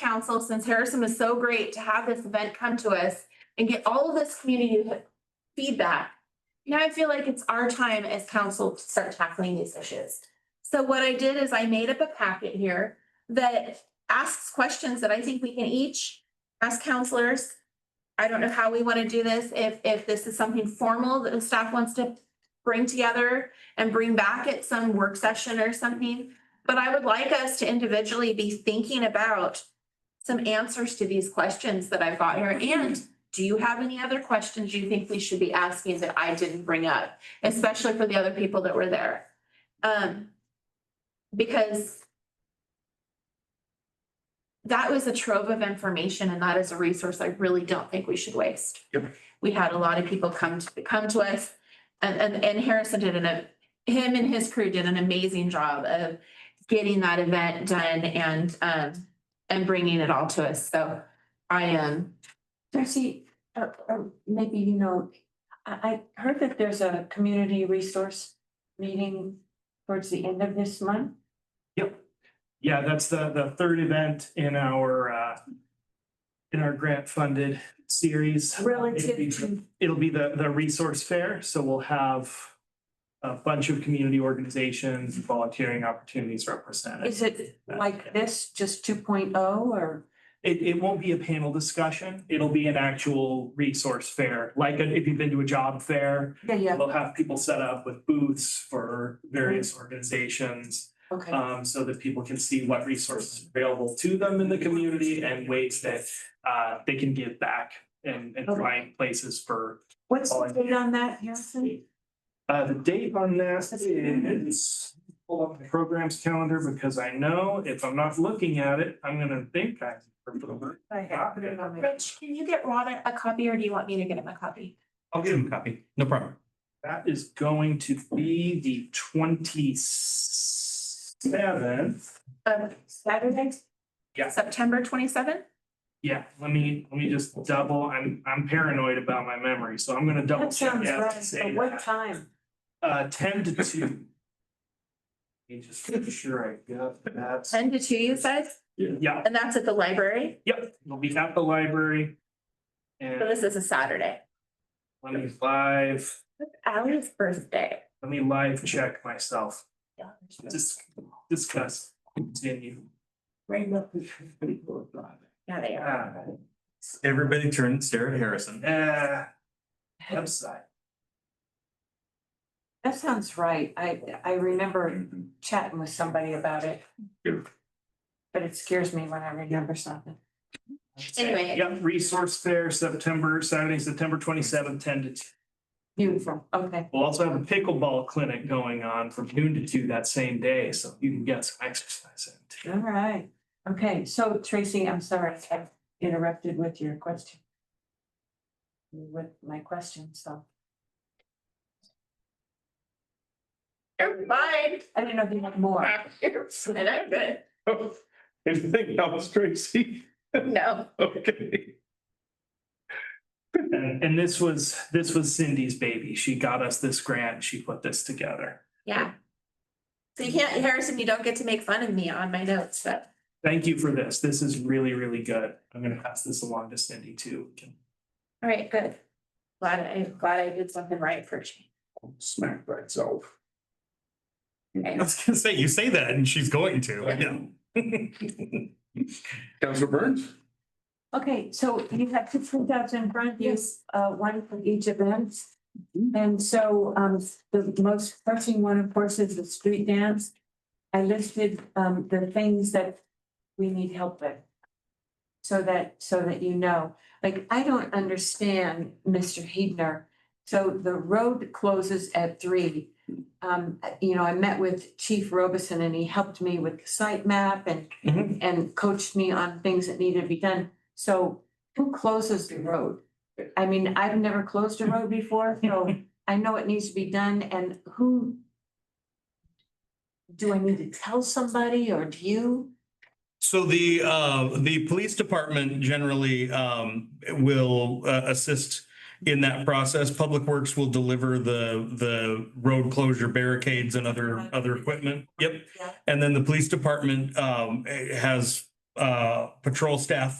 council, since Harrison was so great to have this event come to us and get all of this community feedback. Now I feel like it's our time as council to start tackling these issues. So what I did is I made up a packet here that asks questions that I think we can each ask counselors. I don't know how we want to do this, if, if this is something formal that the staff wants to bring together and bring back at some work session or something. But I would like us to individually be thinking about some answers to these questions that I've got here. And do you have any other questions you think we should be asking that I didn't bring up, especially for the other people that were there? Um, because that was a trove of information and that is a resource I really don't think we should waste. Yep. We had a lot of people come to, come to us and, and, and Harrison did an, him and his crew did an amazing job of getting that event done and, um, and bringing it all to us. So I am, Darcy, uh, uh, maybe you know, I, I heard that there's a community resource meeting towards the end of this month. Yeah, that's the, the third event in our, uh, in our grant funded series. It'll be- Relative to, It'll be the, the resource fair, so we'll have a bunch of community organizations, volunteering opportunities represented. is it like this, just two oh, or? It, it won't be a panel discussion. It'll be an actual resource fair, like if you've been to a job fair. Yeah, yeah, They'll have people set up with booths for various organizations. okay. um, so that people can see what resources are available to them in the community and ways that uh, they can give back and, and find places for. What's the date on that, Harrison? Uh, the date on that is, hold up the program's calendar because I know if I'm not looking at it, I'm gonna think I. I have put it on there. Rich, can you get Ron a copy or do you want me to get him a copy? I'll give him a copy. No problem. That is going to be the twenty seventh. Um, Saturday? Yeah. September twenty-seven? Yeah, let me, let me just double, I'm, I'm paranoid about my memory, so I'm gonna double That check. sounds that and right, say but what that. time? Uh, ten to two. Let me just make sure I got that. Ten to two, you said? Yeah, And that's at the library? yep, it'll be at the library. So this And is a Saturday. let me live, Ally's birthday. let me live check myself, Yeah. Dis- discuss, continue. Yeah, they are. Ah, Everybody turn and stare at Harrison. Uh, website, That sounds right. I, I remember chatting with somebody about it. But it scares me when I remember something. Anyway. yep, resource fair, September, Saturday, September twenty seventh, ten to two. Beautiful, okay. We'll also have a pickleball clinic going on from noon to two that same day, so you can get some exercise in. All right, okay, so Tracy, I'm sorry, I interrupted with your question. With my question, so You're fine. I didn't know if you had Oh, more. Uh, And I'm good. Anything else, Tracy? No. Okay. And, and this was, this was Cindy's baby. She got us this grant. She put this together. Yeah. So you can't, Harrison, you don't get to make fun of me on my notes, but Thank you for this. This is really, really good. I'm gonna pass this along to Cindy too. all right, good. Glad I, glad I did something right for you. Smack by itself. I was gonna say, you say that and she's going to, I know. Mm-hmm. Counselor Burns? Okay, so you have two printouts in front of you, uh, one for each event. And so, um, the most pressing one, of course, is the street dance. I listed, um, the things that we need help with. So that, so that you know, like, I don't understand Mr. Heidner. So the road closes at three. Um, you know, I met with Chief Robison and he helped me with the site map and Mhm. and coached me on things that needed to be done. So who closes the road? I mean, I've never closed a road before, so I know it needs to be done and who? Do I need to tell somebody or do you? So the, uh, the police department generally, um, will, uh, assist in that process. Public Works will deliver the, the road closure barricades and other, other equipment. Yep. Yeah. And then the police department, um, eh, has uh, patrol staff